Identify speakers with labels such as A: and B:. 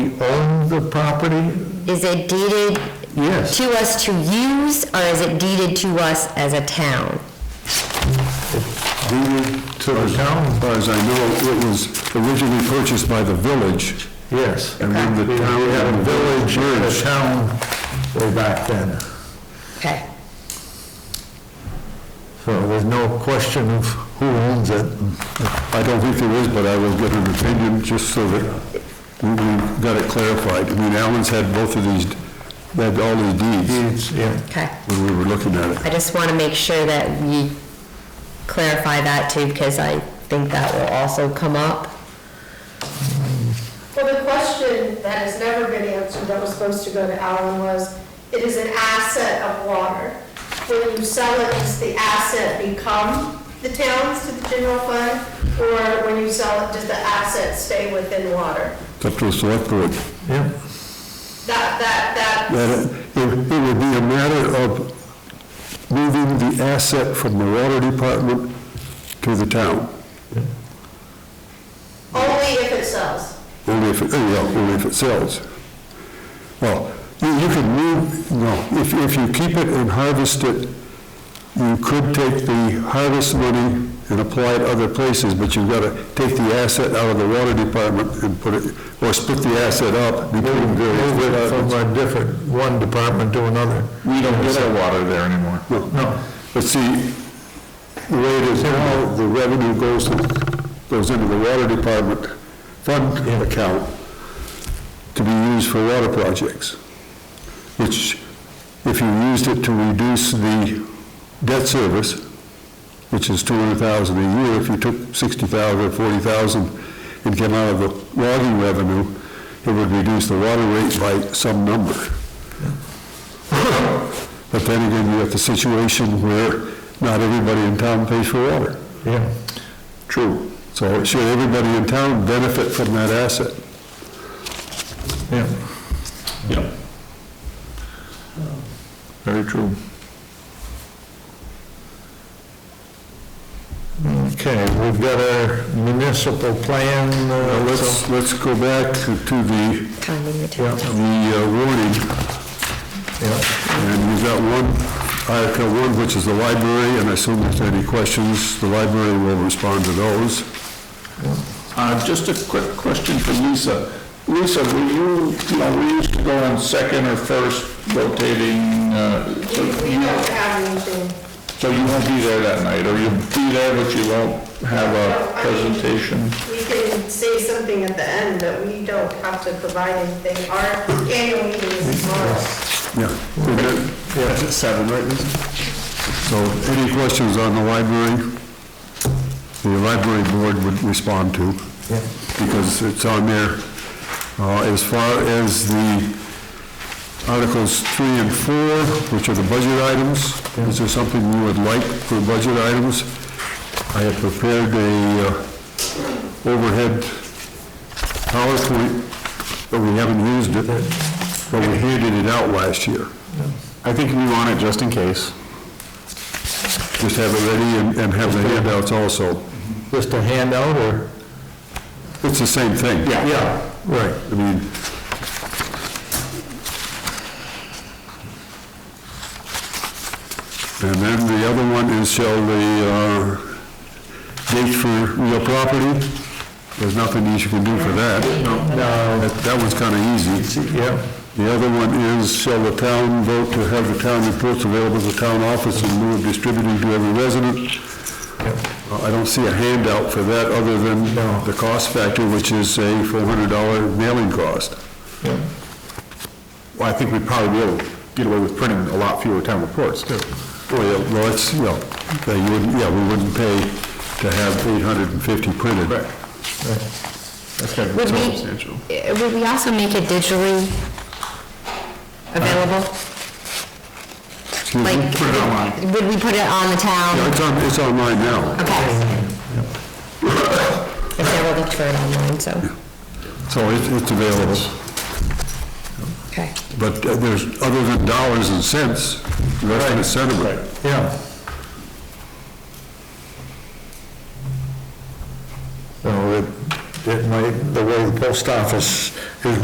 A: the property?
B: Is it deeded
A: Yes.
B: to us to use, or is it deeded to us as a town?
C: deeded to the town, as far as I know, it was originally purchased by the village.
A: Yes.
C: And then the town-
A: We had a village and a
C: Merged.
A: town way back then.
B: Okay.
A: So there's no question of who owns it.
C: I don't think there is, but I will get an opinion just so that we we got it clarified. I mean, Alan's had both of these, had all these deeds
A: It's, yeah.
B: Okay.
C: when we were looking at it.
B: I just want to make sure that we clarify that too, because I think that will also come up.
D: Well, the question that has never been answered, that was supposed to go to Alan, was, it is an asset of water. When you sell it, does the asset become the town's to the general fund? Or when you sell it, does the asset stay within water?
C: It's up to the select board.
A: Yeah.
D: That, that, that,
C: That it, it it would be a matter of moving the asset from the water department to the town.
D: only if it sells.
C: Only if, it- yeah, only if it sells. Well, you, you could move, no, if, if you keep it and harvest it, you could take the harvest money and apply it other places, but you've gotta take the asset out of the water department and put it, or split the asset up between various
A: Move it from
C: departments.
A: a different, one department to another.
E: We don't sell water there anymore.
C: No,
A: No.
C: But see, the way it is now, the revenue goes, to- goes into the water department fund account to be used for water projects, which, if you used it to reduce the debt service, which is two hundred thousand a year, if you took sixty thousand or forty thousand and came out of the logging revenue, it would reduce the water rate by some number. But then again, you have the situation where not everybody in town pays for water.
A: Yeah.
C: True. So should everybody in town benefit from that asset?
A: Yeah.
E: Yep. Very true.
A: Okay, we've got our municipal plan.
C: Now,
A: uh,
C: let's, let's go back to the,
B: Timing the town.
C: the uh, warning,
A: Yeah.
C: and we've got one, Article one, which is the library, and I assume if there's any questions, the library will respond to those.
E: Uh, just a quick question for Lisa. Lisa, were you, you know, we used to go on second or first rotating, uh, so
D: We we
E: you-
D: don't have anything.
E: so you won't be there that night, or you'll be there, but you won't have a presentation?
D: We can say something at the end, but we don't have to provide anything. Our annual meeting is tomorrow.
C: Yeah.
E: Yes, at seven, right,
C: So any questions on the library? The library board would respond to, because it's on there. Uh, As far as the Articles 3 and 4, which are the budget items, is there something you would like for budget items? I have prepared a uh, overhead PowerPoint, but we haven't used it, but we handed it out last year.
E: I think we want it just in case.
C: Just have it ready and- and have the handouts also.
A: Just a handout or?
C: It's the same thing.
A: Yeah. Right.
C: I mean, and then the other one is shall the uh, date for real property? There's nothing you can do for that. No. That that one's kind of easy.
A: Yeah.
C: The other one is shall the town vote to have the town reports available at the town office and move distributing to every resident? Uh, I don't see a handout for that other than the cost factor, which is a four hundred dollar mailing cost.
E: Well, I think we'd probably be able to get away with printing a lot fewer town reports, too.
C: Well, yeah, well, it's, yeah, yeah, you wouldn't, yeah, we wouldn't pay to have eight hundred and fifty printed.
E: That's kind of
B: Would we-
E: substantial.
B: Uh, Would we also make it digitally available?
C: Excuse me?
B: Like, would we put it on the
C: Yeah,
B: town?
C: It's on, it's online now,
B: Okay. I've never looked for it online, so,
C: so it, it's available.
B: okay.
C: But uh, there's, other than dollars and cents, the rest of it's sentiment.
A: Yeah. So it, it might, the way the post office is